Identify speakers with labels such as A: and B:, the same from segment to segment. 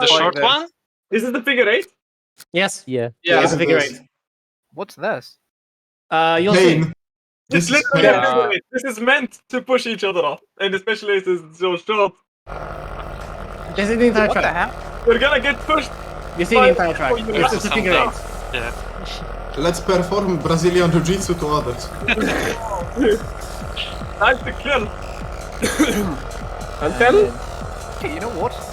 A: The
B: like
A: short
B: this.
A: one?
B: This is the figure eight.
C: Yes.
D: Yeah.
A: Yeah.
C: It's a figure eight.
E: What's this?
C: Uh, you'll see.
F: Pain.
B: This,
F: This is
B: literally a
E: pain.
B: figure eight. This is meant to push each other off, and especially if it's so short,
C: This is the entire
E: What the
C: track.
E: hell?
B: we're gonna get pushed.
C: You see the
B: Five,
C: entire track.
B: four, you
C: It's, it's a
A: have
C: figure
A: some
C: eight.
F: Let's perform Brazilian Jiu Jitsu to others.
B: Time to kill.
G: Until
E: Hey, you know what?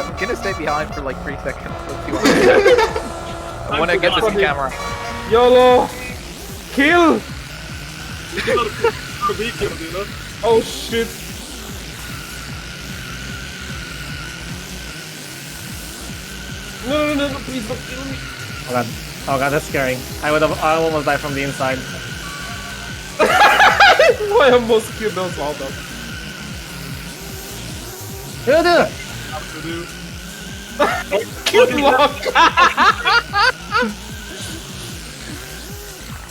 E: I'm gonna stay behind for like three seconds. Let's see what happens. I wanna get this on camera.
G: YOLO, kill.
B: Or be killed, you know?
G: Oh shit. No, no, no, no, please don't kill me.
C: Oh god. Oh god, that's scary. I would have. I almost died from the inside.
G: I almost killed those all them.
C: Yeah, dude.
G: Good luck.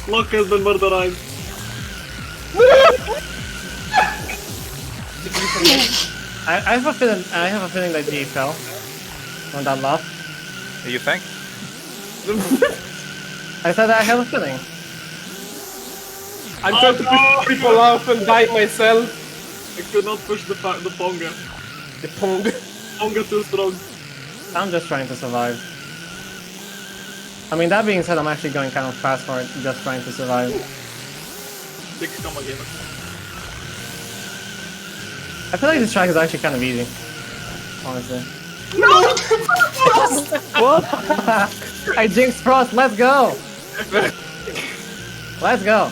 B: Lock has been murderized.
C: I, I have a feeling. I have a feeling that he fell from that laugh.
E: You think?
C: I said I have a feeling.
G: I'm trying to push people off and die myself.
B: I could not push the, fa- the Ponga.
G: The pong.
B: Ponga too strong.
C: I'm just trying to survive. I mean, that being said, I'm actually going kind of fast for it, just trying to survive.
B: Six, come again.
C: I feel like this track is actually kind of easy, honestly. No! what? I jinxed Frost. Let's go. Let's go.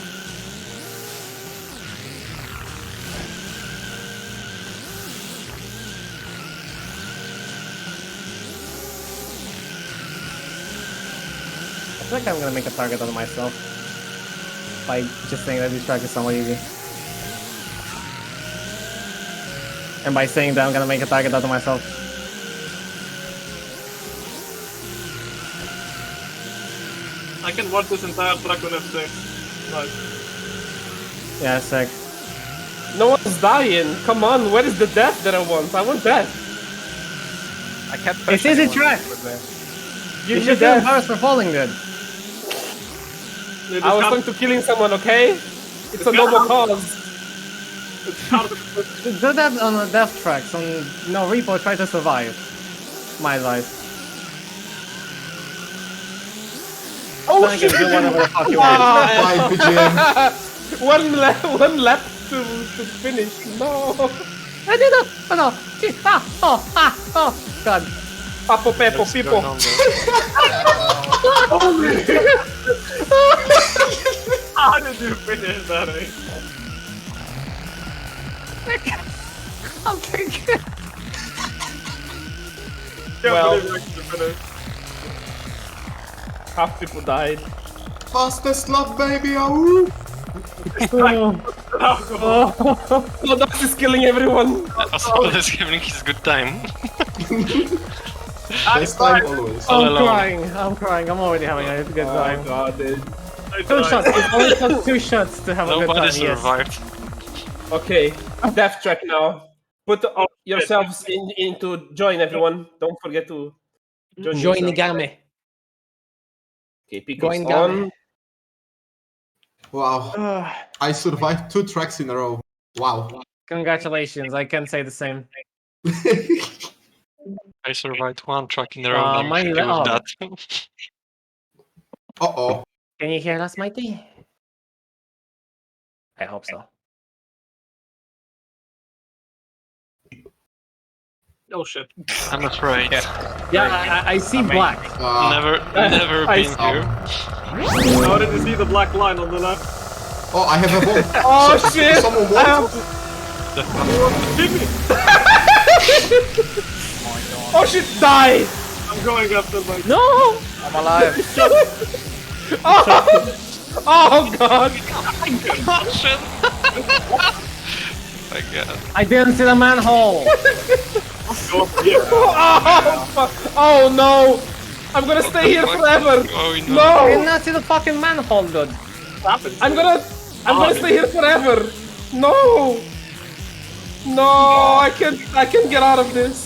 C: I feel like I'm gonna make a target out of myself by just saying that this track is somewhat easy. And by saying that, I'm gonna make a target out of myself.
B: I can watch this entire track on F6. Right.
C: Yeah, sick.
G: No one's dying. Come on, where is the death that I want? I want death.
E: I kept
C: It
E: pushing
C: is a
E: one.
C: track.
G: You
C: You
G: need
C: should be
G: death.
C: embarrassed for falling, dude.
B: It is
G: I was
B: hard,
G: going to killing someone, okay? It's a noble cause.
B: it's hard to push.
C: Do that on a death track. On no repo, try to survive. My life.
G: Oh
C: Then I
G: shit!
C: can do whatever the fuck you want.
G: Ah,
F: Bye, PGM.
G: one lap, one lap to, to finish. No.
C: I did it. Oh no! Gee, Ah, oh, ah, oh! God.
G: Papo Pepo people.
B: How did you finish that, eh?
C: I'm thinking.
B: Can't
G: Well-
B: believe you actually finished.
G: Half people died.
F: Fastest lap, baby. oh. Ahoo.
G: No, Oh, that is killing everyone.
A: is giving his good time.
F: Best time always.
A: All
C: I'm
A: alone.
C: crying. I'm crying. I'm already having a good time.
G: god, dude.
B: I
C: Two
B: died.
C: shots. It only took two shots to have a good
A: Nobody
C: time. Yes.
A: survived.
G: Okay, death track now. Put all yourselves in, into join everyone. Don't forget to join.
D: Join the
G: yourself.
D: game.
G: Okay, pick
D: Join
G: us
D: game.
G: on.
F: Wow. I survived two tracks in a row. Wow.
C: Congratulations. I can say the same.
A: I survived one track in a row.
C: Uh,
A: I'm
C: mine
A: happy
C: is-
A: with
C: oh.
A: that.
F: Uh oh.
C: Can you hear us, Mikey? I hope so.
B: Oh shit.
A: I'm afraid.
C: Yeah, I, I- I see black.
F: Uh, um,
A: Never, never
G: I
A: been
F: see.
A: here.
B: I already see the black line on the left.
F: oh, I have a bomb.
G: Oh
F: So-
G: shit!
F: Someone
G: I
F: wants.
G: have- oh shit! Die!
B: I'm going after my.
G: No!
E: I'm alive.
G: Oh, oh god!
A: My God.
C: I didn't see the manhole.
G: Oh, fuck. oh no! I'm gonna stay here forever.
A: Oh, no.
C: I did
G: No!
C: not see the fucking manhole, dude.
G: I'm gonna, I'm gonna stay here forever. No! No! I can't, I can't get out of this.